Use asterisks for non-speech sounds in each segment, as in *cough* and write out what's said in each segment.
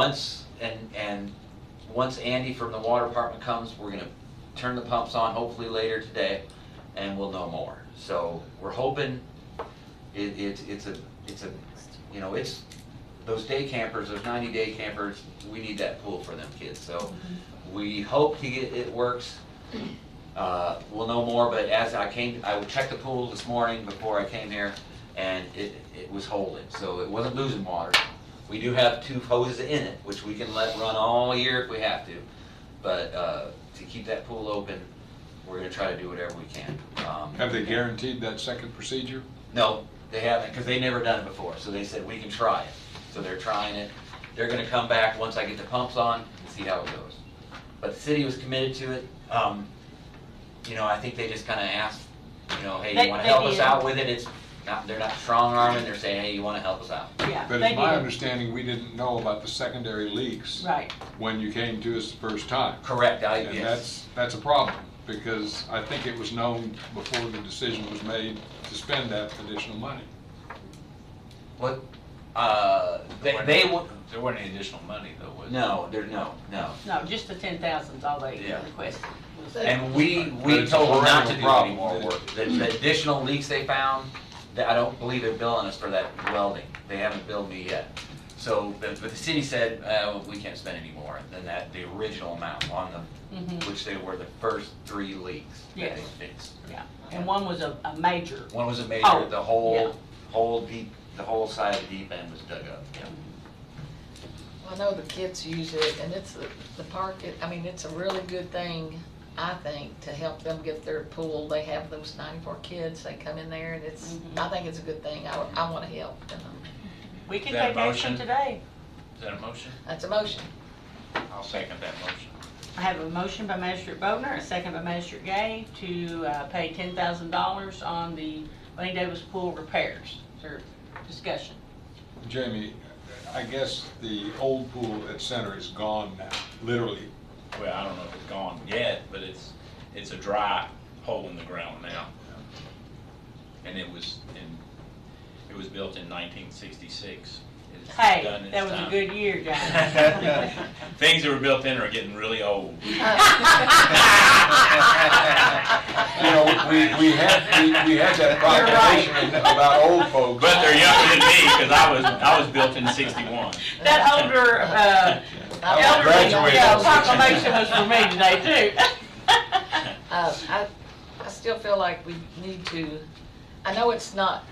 Once, and, and, once Andy from the water department comes, we're gonna turn the pumps on hopefully later today, and we'll know more. So, we're hoping, it, it's, it's a, it's a, you know, it's, those day campers, those ninety day campers, we need that pool for them kids, so we hope to get, it works. Uh, we'll know more, but as I came, I checked the pool this morning before I came here, and it, it was holding, so it wasn't losing water. We do have two hoses in it, which we can let run all year if we have to, but, uh, to keep that pool open, we're gonna try to do whatever we can. Um, Have they guaranteed that second procedure? no, they haven't, because they never done it before, so they said, we can try it. So they're trying it, they're gonna come back once I get the pumps on and see how it goes. But the city was committed to it, um, you know, I think they just kinda asked, you know, hey, They- you wanna they help us did. out with it, it's not, they're not strong arming, they're saying, hey, you wanna help us out? Yeah, But they it's my did. understanding, we didn't know about the secondary leaks. Right. When you came to us the first time. Correct, I, And yes, that's, that's a problem, because I think it was known before the decision was made to spend that additional money. what, uh, they, they would, There wasn't any additional money though, was there? no, there, no, no. No, just the ten thousand's all they Yeah. requested. was- And we, But we it's a told them not to perennial do any problem. more work. The the additional leaks they found, that I don't believe they're billing us for that welding. They haven't billed me yet. So, but but the city said, uh, we can't spend any more than that, the original amount on them, Mm-hmm. Mhm. which they were the first three leaks that they Yes. fixed. Yeah, and one was a, a major. One was a Oh, major, the yeah. whole, whole deep, the whole side of the deep end was dug up. Well, I know the kids use it, and it's, the- the park, it- I mean, it's a really good thing, I think, to help them get their pool. They have those ninety-four kids, they come in there, and it's, Mhm. I think it's a good thing. I, I wanna help. and, um, We can That take action motion? today. Is that a motion? That's a motion. I'll second that motion. I have a motion by Magistrate Bodnar, a second by Magistrate Gay to, uh, pay ten thousand dollars on the Lane Davis Pool repairs. Is there discussion? Jamie, I guess the old pool at Center is gone now, literally. *laughs* Well, I don't know if it's gone yet, but it's, it's a dry hole in the ground now. And it was in, it was built in nineteen sixty-six. Hey, that was a good year, *laughs* John. Things that were built in are getting really *laughs* old. You know, we, we had, we- we had that proclamation about old folks. But they're younger than me, because I was, I was built in sixty-one. That older, *laughs* uh, I was elderly, graduated. yeah, proclamation was for me today too. *laughs* Uh, I, I still feel like we need to, I know it's not,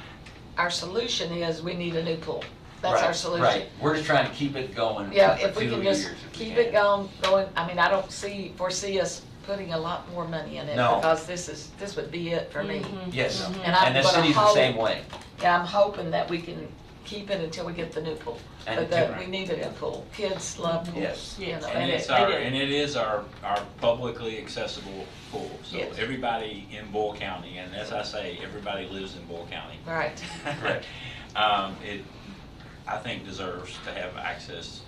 our solution is we need a new pool. That's our Right, solution. Right, we're just trying to keep it going for two Yeah, years if we can just if we keep can. it going, going, I mean, I don't see, foresee us putting a lot more money in it. No. Because this is, this would be it for me. Yes, Mm-hmm. And I'm and the gonna city's the hold- same way. Yeah, I'm hoping that we can keep it until we get the new pool. And But that, we different. need a new pool. Kids love Yes. pools, you know. And They it's did, our, they did. and it is our, our publicly accessible pool. So Yes. everybody in Bull County, and as I say, everybody lives in Bull County. Right. Correct. *laughs* Um, it, I think deserves to have access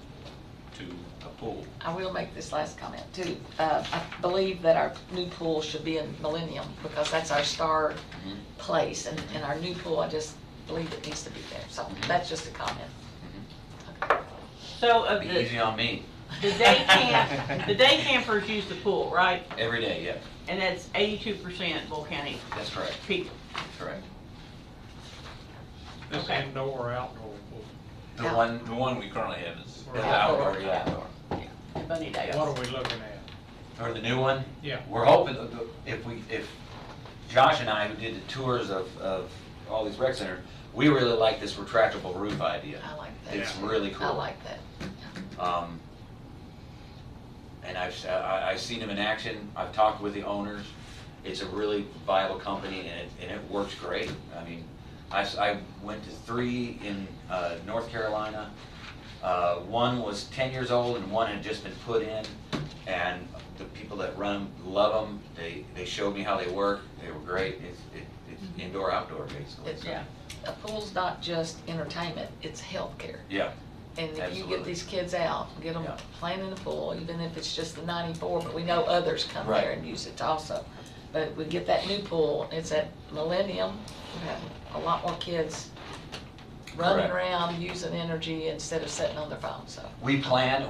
to a pool. I will make this last comment too. Uh, I believe that our new pool should be in Millennium because that's our star Mm-hmm. place and, and our new pool, I just believe it needs to be there. So that's just a comment. So of Be the, easy on me, the day camp, the day campers use the pool, right? every day, yeah, And that's eighty-two percent Bull County that's correct, people. correct. This Okay. indoor or outdoor pool? The Yeah. one, The one we currently have is. the Yeah. outdoor, yeah, outdoor. And Bunny Davis. What are we looking at? Or the new one? Yeah. We're hoping, that the- if we, if Josh and I, who did the tours of, of all these rec centers, we really like this retractable roof idea. I like that. It's really cool. I like that. Um, And I've, s- I- I've seen them in action, I've talked with the owners, it's a really viable company and it, and it works great. I mean, I, s- I went to three in uh, North Carolina. Uh, One was ten years old and one had just been put in. And the people that run them love them, they, they showed me how they work, they were great. It's, it- it's indoor, outdoor basically. It's- Yeah. A pool's not just entertainment, it's healthcare. Yeah, And if you Absolutely. get these kids out, get them Yeah. playing in the pool, even if it's just the ninety-four, but we know others come there Right. and use it also. But we get that new pool, it's at Millennium, we have a lot more kids running Correct. around using energy instead of sitting on their phone, so. We plan